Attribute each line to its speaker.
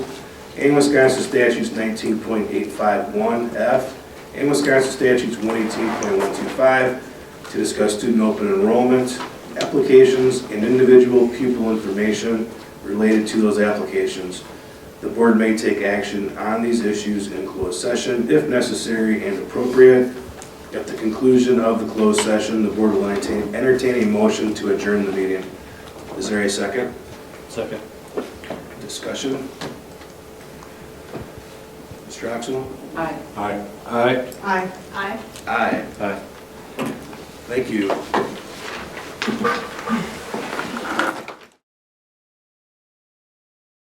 Speaker 1: in Wisconsin statutes 19.851F, and Wisconsin statutes 118.125 to discuss student open enrollment, applications, and individual pupil information related to those applications. The board may take action on these issues in closed session if necessary and appropriate. At the conclusion of the closed session, the board will entertain, entertain a motion to adjourn the meeting. Is there a second?
Speaker 2: Second.
Speaker 1: Discussion? Mr. Oxnell?
Speaker 3: Aye.
Speaker 2: Aye. Aye.
Speaker 3: Aye. Aye.
Speaker 1: Aye.
Speaker 2: Aye.
Speaker 1: Thank you.